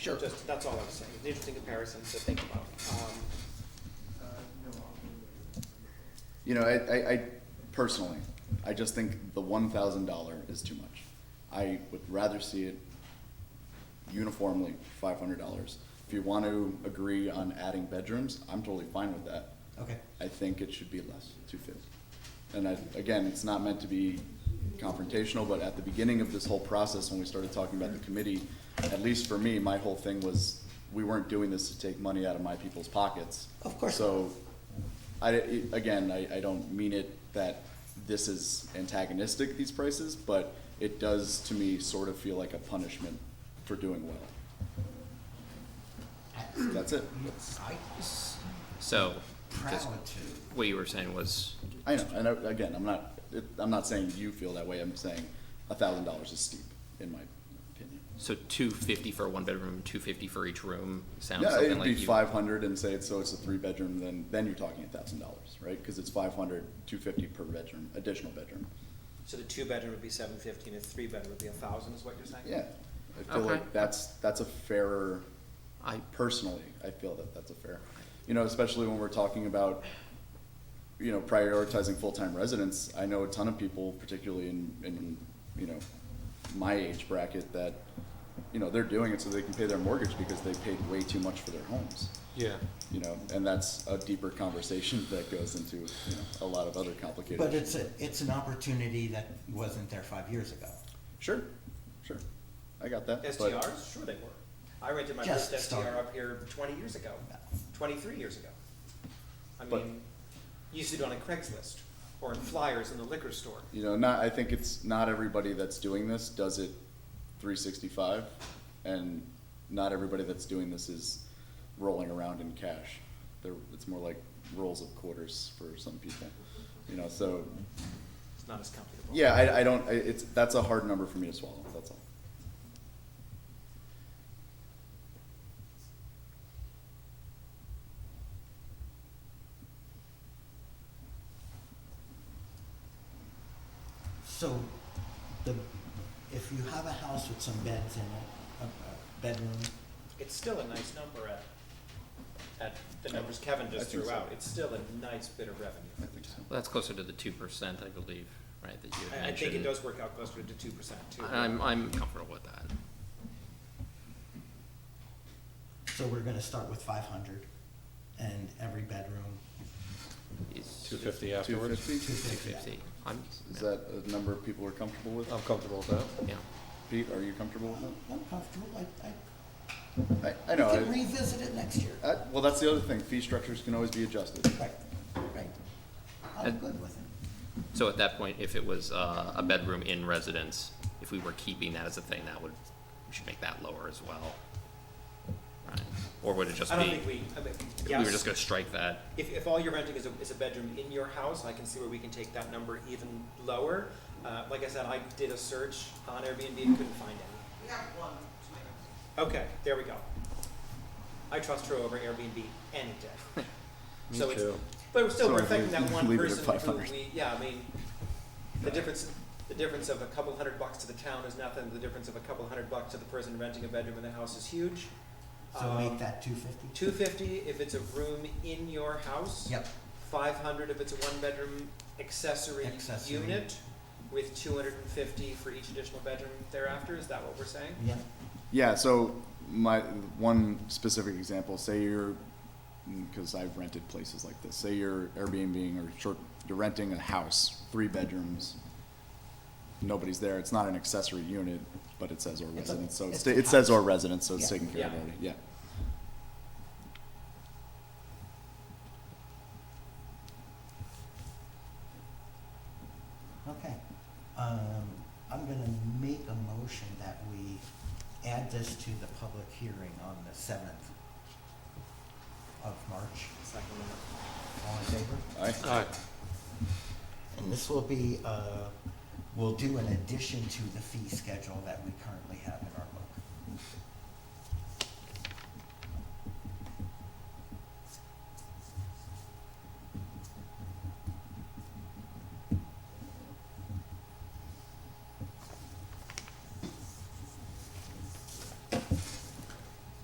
Sure. Just, that's all I'm saying. It's an interesting comparison to think about. Um, You know, I, I, I personally, I just think the one thousand dollar is too much. I would rather see it uniformly five hundred dollars. If you want to agree on adding bedrooms, I'm totally fine with that. Okay. I think it should be less, two fifty. And I, again, it's not meant to be confrontational, but at the beginning of this whole process, when we started talking about the committee, at least for me, my whole thing was, we weren't doing this to take money out of my people's pockets. Of course. So, I, it- again, I, I don't mean it that this is antagonistic, these prices, but it does to me sort of feel like a punishment for doing well. That's it. I was So, just proud to. what you were saying was, I know, and I- again, I'm not, it- I'm not saying you feel that way, I'm saying a thousand dollars is steep, in my opinion. so two fifty for a one bedroom, two fifty for each room, sounds Yeah, something it'd like you. be five hundred and say it's, so it's a three bedroom, then, then you're talking a thousand dollars, right? Cause it's five hundred, two fifty per bedroom, additional bedroom, So the two-bedroom would be seven fifty, and the three-bedroom would be a thousand, is what you're saying? yeah. I feel Okay. like that's, that's a fairer, I, personally, I feel that that's a fair, you know, especially when we're talking about, you know, prioritizing full-time residents. I know a ton of people, particularly in, in, you know, my age bracket, that, you know, they're doing it so they can pay their mortgage because they paid way too much for their homes. Yeah. You know, and that's a deeper conversation that goes into, you know, a lot of other complicated. But issues. it's a, it's an opportunity that wasn't there five years ago. Sure, sure, I got that. but- STRs? Sure they were. I rented my Just first STR started. up here twenty years ago, twenty-three years ago. I But- mean, you used to do it on a Craigslist, or in flyers in the liquor store. you know, not, I think it's not everybody that's doing this does it three sixty-five, and not everybody that's doing this is rolling around in cash. They're, it's more like rolls of quarters for some people, you know, so, It's not as comfortable. yeah, I, I don't, I- it's, that's a hard number for me to swallow, that's all. So the, if you have a house with some beds in it, a, a bedroom, It's still a nice number at, at the numbers Kevin Oh, I just think threw so. out. It's still a nice bit of revenue. I think so. well, that's closer to the two percent, I believe, right, that you had I, I think it mentioned. does work out closer to two percent too. I'm, I'm comfortable with that. so we're gonna start with five hundred and every bedroom, It's Two fifty Two afterwards? fifty, two is two fifty. fifty, I'm, yeah, that a number people are comfortable with? I'm comfortable with that. yeah. Pete, are you comfortable with that? I'm comfortable, I, I, I, I know, we can I, revisit it next year. I, well, that's the other thing, fee structures can always be adjusted. Right, right. I'm And- good with it. So at that point, if it was, uh, a bedroom in residence, if we were keeping that as a thing, that would, we should make that lower as well. Right, or would it just I don't be, think we, I mean, we yes. were just gonna strike that, If, if all you're renting is a, is a bedroom in your house, I can see where we can take that number even lower. Uh, like I said, I did a search on Airbnb and couldn't find any. We have one to my house. Okay, there we go. I trust her over Airbnb any day. Me So it's- too. But it's still, So we're if affecting we that one leave it at person who 500. we, yeah, I mean, the difference, the difference of a couple hundred bucks to the town is nothing. The difference of a couple hundred bucks to the person renting a bedroom in the house is huge. So Um, make that two fifty? Two fifty if it's a room in your house. Yep, Five hundred if it's a one-bedroom accessory Accessory. unit, with two hundred and fifty for each additional bedroom thereafter, is that what we're saying? yep, Yeah, so my, one specific example, say you're, because I've rented places like this, say you're Airbnb or short, you're renting a house, three bedrooms, nobody's there, it's not an accessory unit, but it says or It's a- residence, so it's, it's a it says or house. residence, so it's Yeah. taken care of Yeah. already, yeah. okay. Um, I'm gonna make a motion that we add this to the public hearing on the seventh of March. Second one. All in favor? Aye. Aye. And this will be, uh, will do in addition to the fee schedule that we currently have in our